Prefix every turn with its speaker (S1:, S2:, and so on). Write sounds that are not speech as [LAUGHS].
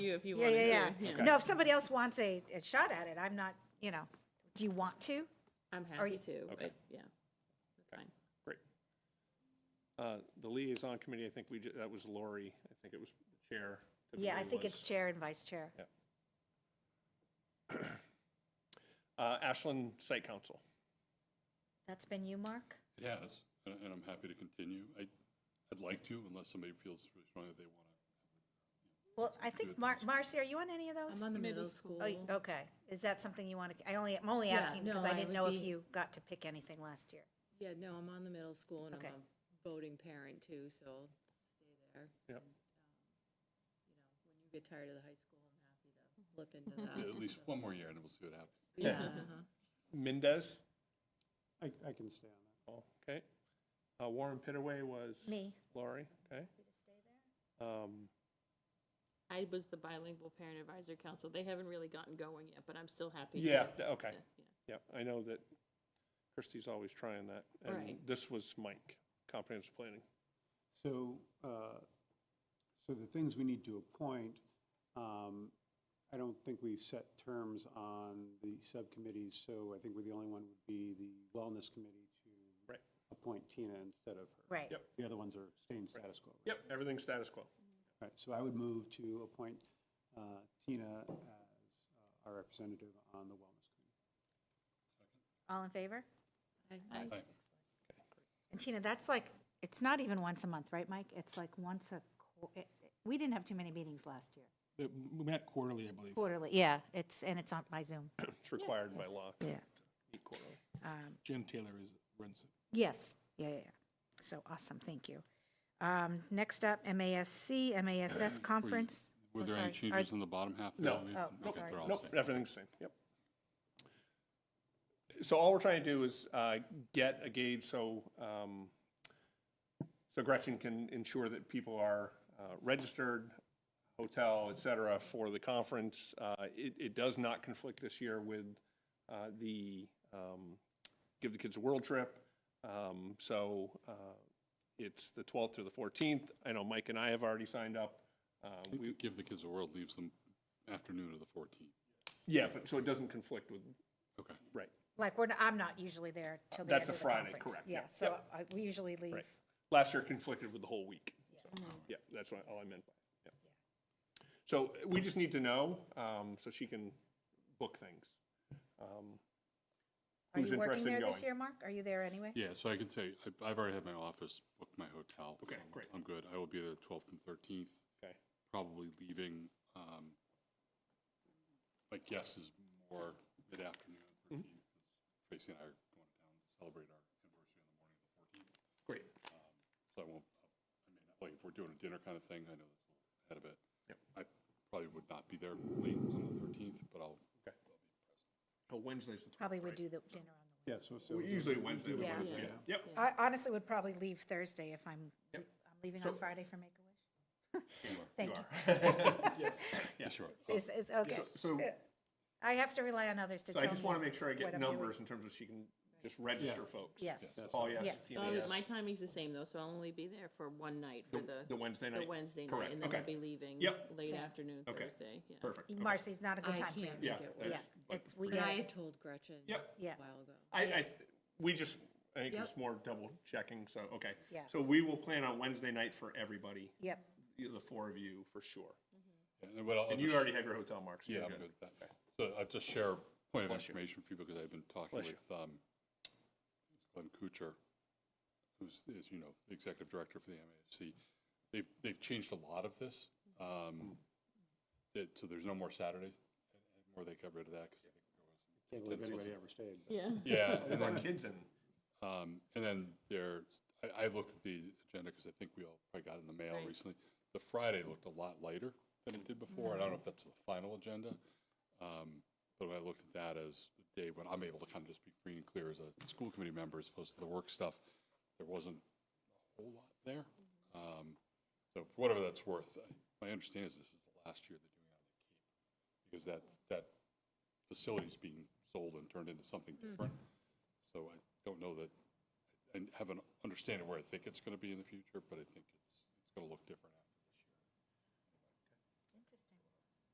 S1: you if you
S2: Yeah,
S1: want to do it.
S2: yeah, yeah. No, if somebody else wants a, a shot at it, I'm not, you know, do you want to?
S1: I'm
S2: Are you-
S1: happy to,
S3: Okay.
S1: but yeah, that's fine.
S3: Great. Uh, The liaison committee, I think we, ju- that was Lori, I think it was the chair.
S2: Yeah, I
S3: typically
S2: think
S3: was.
S2: it's chair and vice chair.
S3: Uh, Ashland Site Council.
S2: That's been you, Mark?
S4: It has, and and I'm happy to continue. I, I'd like to, unless somebody feels really strongly they want to.
S2: Well, I think, Mar- Marcy, are you on any of those?
S1: I'm on the middle school.
S2: Oh, you- Okay, is that something you want to, I only, I'm only
S1: Yeah,
S2: asking because
S1: no,
S2: I
S1: I
S2: didn't
S1: would
S2: know if
S1: be-
S2: you got to pick anything last year.
S1: Yeah, no, I'm on the middle school and I'm
S2: Okay.
S1: a voting parent too, so I'll stay there. um,
S3: Yep.
S1: You know, when you get tired of the high school, I'm happy to flip
S3: [LAUGHS]
S1: into that.
S4: Yeah, At least one more year and then we'll see what happens.
S1: Yeah, [LAUGHS]
S3: Yeah.
S1: uh-huh.
S3: Mendez,
S5: I, I can stay on that.
S3: oh, okay. Uh, Warren Pitaway was.
S2: Me.
S3: Lori, okay. Um,
S1: I was the bilingual parent advisory council. They haven't really gotten going yet, but I'm still happy to.
S3: Yeah, th- okay,
S1: Yeah, yeah.
S3: yeah, I know that Christie's always trying that. And
S1: Right.
S3: this was Mike, comprehensive planning.
S5: So, uh, so the things we need to appoint, um, I don't think we've set terms on the subcommittees, so I think we're the only one would be the Wellness Committee to
S3: Right.
S5: appoint Tina instead of her.
S2: Right.
S3: Yep.
S5: The other ones are staying status quo. right?
S3: Yep, everything's status quo.
S5: All right, so I would move to appoint uh, Tina as uh, our representative on the Wellness Committee.
S2: All in favor?
S1: I, I,
S4: Aye.
S2: And Tina, that's like, it's not even once a month, right, Mike? It's like once a, qu- it- it- we didn't have too many meetings last year.
S6: Uh, We met quarterly, I believe.
S2: Quarterly, yeah, it's, and it's on by Zoom.
S3: It's required by law.
S2: Yeah. Um,
S3: Meet quarterly.
S6: Jen Taylor is, runs it.
S2: Yes, yeah, yeah, yeah. So awesome, thank you. Um, Next up, MASC,
S3: [CLEARS THROAT]
S2: MASS Conference.
S4: Were
S2: Oh,
S4: there
S2: sorry.
S4: any
S2: Are-
S4: changes in the bottom half? there?
S3: No.
S4: I mean,
S2: Oh,
S4: okay,
S2: sorry.
S4: they're all the
S3: Nope,
S4: same.
S3: everything's the same, yep. So all we're trying to do is uh, get a gauge so, um, so Gretchen can ensure that people are uh, registered, hotel, et cetera, for the conference. Uh, It, it does not conflict this year with uh, the um, Give the Kids a World Trip. Um, So uh, it's the 12th through the 14th. I know Mike and I have already signed up. Uh,
S4: I think
S3: we-
S4: the Give the Kids a World leaves them afternoon of the 14th.
S3: Yeah, but, so it doesn't conflict with,
S4: Okay.
S3: right.
S2: Like, we're, not- I'm not usually there till the end
S3: That's
S2: of
S3: a
S2: the
S3: Friday,
S2: conference.
S3: correct,
S2: Yeah,
S3: yeah,
S2: so I- we usually leave.
S3: Right. Last year conflicted with the whole week. So, Yeah, that's what, all I meant by, yeah. So we just need to know, um, so she can book things. Um,
S2: Are
S3: Who's
S2: you working
S3: interested in
S2: there this
S3: going?
S2: year, Mark? Are you there anyway?
S4: Yeah, so I can say, I- I've already had my office, booked my hotel.
S3: Okay,
S4: so
S3: great.
S4: I'm good. I will be there the 12th and 13th,
S3: Okay,
S4: probably leaving, um, my guess is more mid-afternoon,
S3: Mm-hmm.
S4: 13th. 'cause Tracy and I are going down to celebrate our anniversary on the morning of the 14th.
S3: great.
S4: Um, So I won't, I mean, like, if we're doing a dinner kind of thing, I know that's a little ahead of it.
S3: Yep.
S4: I probably would not be there late on the thirteenth, but I'll,
S3: Oh, Wednesday's the
S2: Probably would do the dinner
S5: Yeah, so, so.
S3: Usually Wednesday.
S2: Yeah.
S3: Wednesday, Yep,
S2: on the. I honestly would probably leave Thursday if I'm, I'm leaving on
S3: So-
S2: Friday for Make-A-Wish. [LAUGHS] Thank you.
S4: yeah, sure.
S2: Is, is, okay.
S3: So- so,
S2: I have to rely on others to
S3: so
S2: tell
S3: I
S2: me.
S3: just want to make sure I
S2: what
S3: get
S2: I'm doing.
S3: numbers in terms of she can just register folks.
S2: Yes.
S5: That's
S3: Paul, yes,
S2: Yes.
S3: Tina,
S1: So I was-
S3: yes.
S1: my timing's the same though, so I'll only be there for one night for the,
S3: The Wednesday night?
S1: the Wednesday night.
S3: Correct,
S1: And then I'll
S3: okay.
S1: be leaving
S3: Yep.
S1: late
S2: Same.
S1: afternoon
S3: Okay.
S1: Thursday. yeah.
S3: Perfect. okay.
S2: Marcy's not a good
S1: I
S2: time for you.
S1: can't
S3: Yeah,
S1: make it
S2: Yeah,
S3: that's- but-
S2: it's, we
S1: But
S2: get
S1: I
S2: it.
S1: had told Gretchen a
S3: Yep.
S2: Yeah.
S1: while ago.
S3: I,
S2: Yeah.
S3: I, th- we just, I think
S1: Yep.
S3: it's more double checking, so, okay.
S2: Yeah.
S3: So we will plan on Wednesday night for everybody,
S2: Yep,
S3: you- the four of you, for sure.
S4: And what I'll- I'll
S3: And you
S4: just-
S3: already have your hotel, Mark, so
S4: Yeah,
S3: you're
S4: I'm
S3: good.
S4: good with that. So I'll just share a point of
S3: Bless you.
S4: information for you because I've been talking
S3: Bless you.
S4: with um, Glenn Kuchar, who's, is, you know, the executive director for the MASC. They've, they've changed a lot of this.
S3: Hmm.
S4: um, that- So there's no more Saturdays, or they got rid of that because
S5: Can't believe anybody ever stayed.
S1: Yeah.
S4: Yeah, and
S3: With our
S4: then-
S3: kids in.
S4: Um, And then there, I, I looked at the agenda because I think we all probably got it in the mail
S1: Right.
S4: recently. The Friday looked a lot lighter than it did before. and I don't know if that's the final agenda. um, But when I looked at that as the day when I'm able to kind of just be free and clear as a school committee member as opposed to the work stuff, there wasn't a whole lot there. Um, So for whatever that's worth, I- my understanding is this is the last year they're doing it on the Cape. Because that, that facility's being sold and turned into something different. So I don't know that, and have an understanding where I think it's going to be in the future, but I think it's, it's going to look different